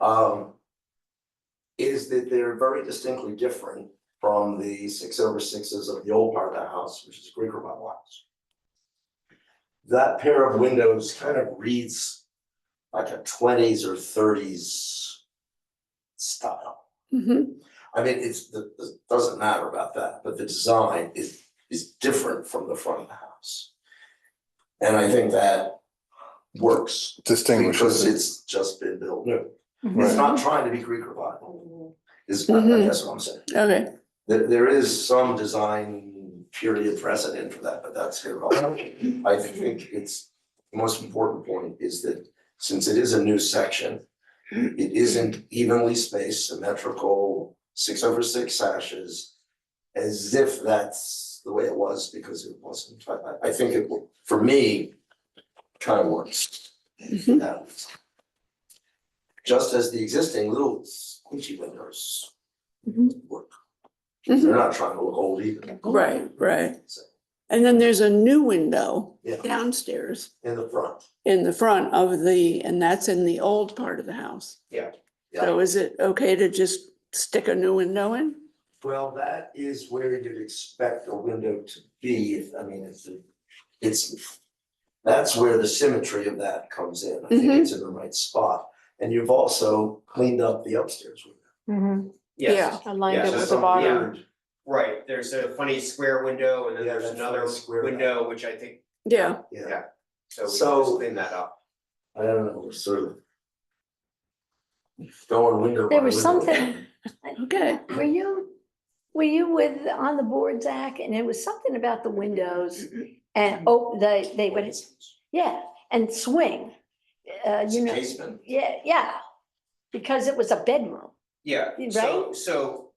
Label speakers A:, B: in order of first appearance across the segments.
A: Um. Is that they're very distinctly different from the six over sixes of the old part of the house, which is Greek revival house. That pair of windows kind of reads like a twenties or thirties style.
B: Mhm.
A: I mean, it's, the- the- it doesn't matter about that, but the design is, is different from the front of the house. And I think that works because
C: distinguishes it.
A: it's just been built new. It's
D: Mm-hmm.
C: Right.
A: not trying to be Greek revival, is, I I guess what I'm saying.
B: Okay,
A: There, there is some design period precedent for that, but that's irrelevant. I think it's, the most important point is that since it is a new section, it isn't evenly spaced, symmetrical, six over six sashes, as if that's the way it was because it wasn't. I, I- I think it, will- for me, kind of works.
B: Mhm.
A: Now, Just as the existing little squishy windows
B: Mhm.
A: work.
B: Mhm.
A: They're not trying to look old either.
B: right, right.
A: So,
B: And then there's a new window
A: Yeah,
B: downstairs
A: in the front.
B: in the front of the, and that's in the old part of the house.
A: Yeah, yeah.
B: So is it okay to just stick a new window in?
A: Well, that is where you'd expect a window to be. if- I mean, it's, it's, that's where the symmetry of that comes in. I think
B: Mhm.
A: it's in the right spot. And you've also cleaned up the upstairs window.
E: Mm-hmm.
F: Yes,
D: aligned
F: Yeah,
D: it
F: so
D: with the
A: Some
D: bottom.
A: weird-
F: right, there's a funny square window and then
A: Yeah,
F: there's
A: that's
F: another
A: funny square
F: window, which I think,
B: Yeah,
A: Yeah,
F: Yeah. so we can
A: So-
F: just clean that up.
A: I don't know, we're sort of going window by
E: There was
A: window.
E: something,
B: okay.
E: were you, were you with, on the board, Zach? And it was something about the windows and, oh, they, they would, yeah, and swing. Uh,
A: It's
E: you
A: a
E: know,
A: casement.
E: yeah, yeah, because it was a bedroom.
F: Yeah,
E: Y-
F: so, so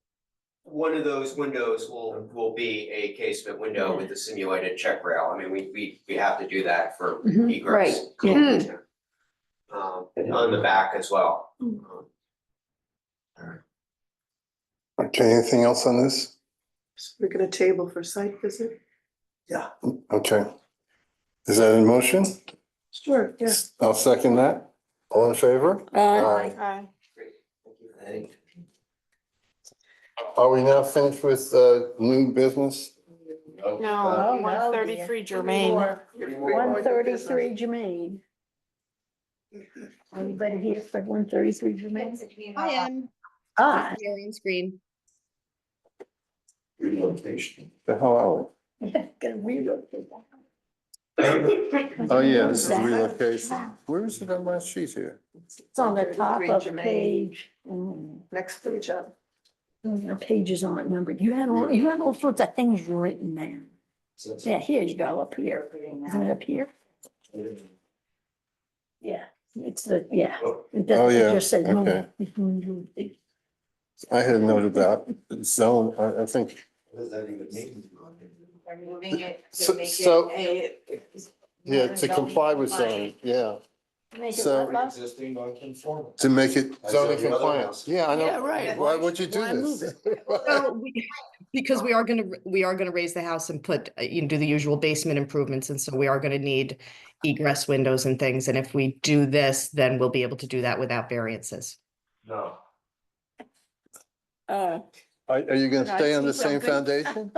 F: one of those windows will, will be a casement
A: Mm-hmm.
F: window with the simulated check rail. I mean, we, we, we have to do that for
B: Mhm.
F: egress.
E: Right,
B: yeah.
F: Um, on the back as well. Um,
C: Okay, anything else on this?
D: We're gonna table for site visit?
C: Okay. Is that in motion?
D: Sure, yeah.
C: I'll second that. All in favor?
B: Uh,
D: Aye.
A: Hey,
C: Are we now finished with uh, new business?
D: Oh,
E: No,
D: no,
E: one thirty-three Germaine. One thirty-three Germaine. Anybody here for one thirty-three Germaine?
G: I am
E: Ah,
G: sharing screen.
A: Relocation.
C: The hell are
E: gonna relocate that.
C: we? Oh, yeah, this is
E: Zach.
C: relocation. Where is it on my sheet here?
E: It's on the top
D: 133
E: of the
D: Germaine.
E: page. Mm.
D: Next page up.
E: The pages aren't numbered. You had all, you had all sorts of things written there.
A: So it's-
E: Yeah, here you go, up here. Isn't it up here? Yeah, it's the, yeah.
A: Oh.
E: It
C: Oh,
E: does- it
C: yeah,
E: just says Mm-hmm. no.
C: okay. I had noted that zone, I, I think.
A: What does that even mean?
G: We're moving it
C: So-
G: to make
C: so-
G: it a.
C: Yeah, to comply with zone,
G: zoning.
C: yeah,
E: Make it
C: So-
E: what, love?
A: Existing non-conforming.
C: to make it
A: I said
C: zoning
A: the other
C: compliant.
A: house.
C: Yeah, I
B: Yeah,
C: know.
B: right.
C: Why would you do
B: Why move
C: this?
G: So we- Because we are gonna, we are gonna raise the house and put, uh, you know, do the usual basement improvements, and so we are gonna need egress windows and things, and if we do this, then we'll be able to do that without variances.
A: No.
B: uh,
C: Are, are you
B: No,
C: gonna
B: I
C: stay on the
B: think
C: same
B: I'm good.
C: foundation?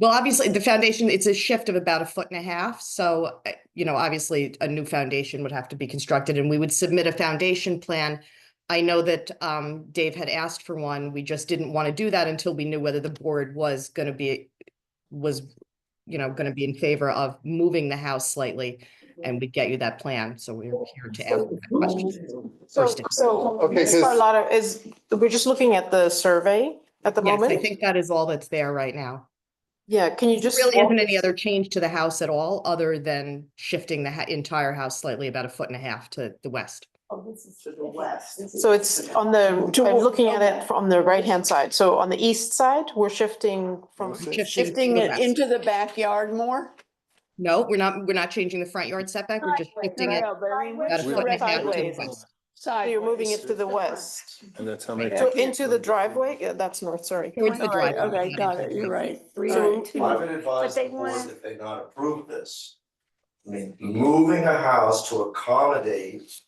G: Well, obviously, the foundation, it's a shift of about a foot and a half, so, uh, you know, obviously, a new foundation would have to be constructed, and we would submit a foundation plan. I know that um Dave had asked for one, we just didn't want to do that until we knew whether the board was gonna be, was, you know, gonna be in favor of moving the house slightly, and we'd get you that plan, so we're here to ask that question.
D: So,
G: First.
D: so,
C: Okay,
D: Ms.
C: 'cause-
D: Carlotta, is, we're just looking at the survey at the
G: Yes, I
D: moment?
G: think that is all that's there right now.
D: Yeah, can you just?
G: Really
D: walk-
G: isn't any other change to the house at all, other than shifting the ha- entire house slightly about a foot and a half to the west.
D: So it's on the, I'm looking at it from the right-hand side. So on the east side, we're shifting from,
C: What's it?
B: shifting it into the backyard more?
G: No, we're not, we're not changing the front yard setback, we're just shifting it.
D: Yeah, very
G: about a
C: We're-
G: foot and a half to the
D: sideways.
G: west.
D: So you're moving it to the west.
C: And that's how many.
D: So into the driveway, yeah, that's north, sorry.
G: Towards the
B: Right,
G: driveway,
B: Okay,
G: not
B: got
G: into
B: it,
G: the
B: you're
G: front.
B: right.
D: So-
B: Right.
A: I would advise
E: But
A: the
E: they
A: board
E: want-
A: that they not approve this. I mean, moving a house to accommodate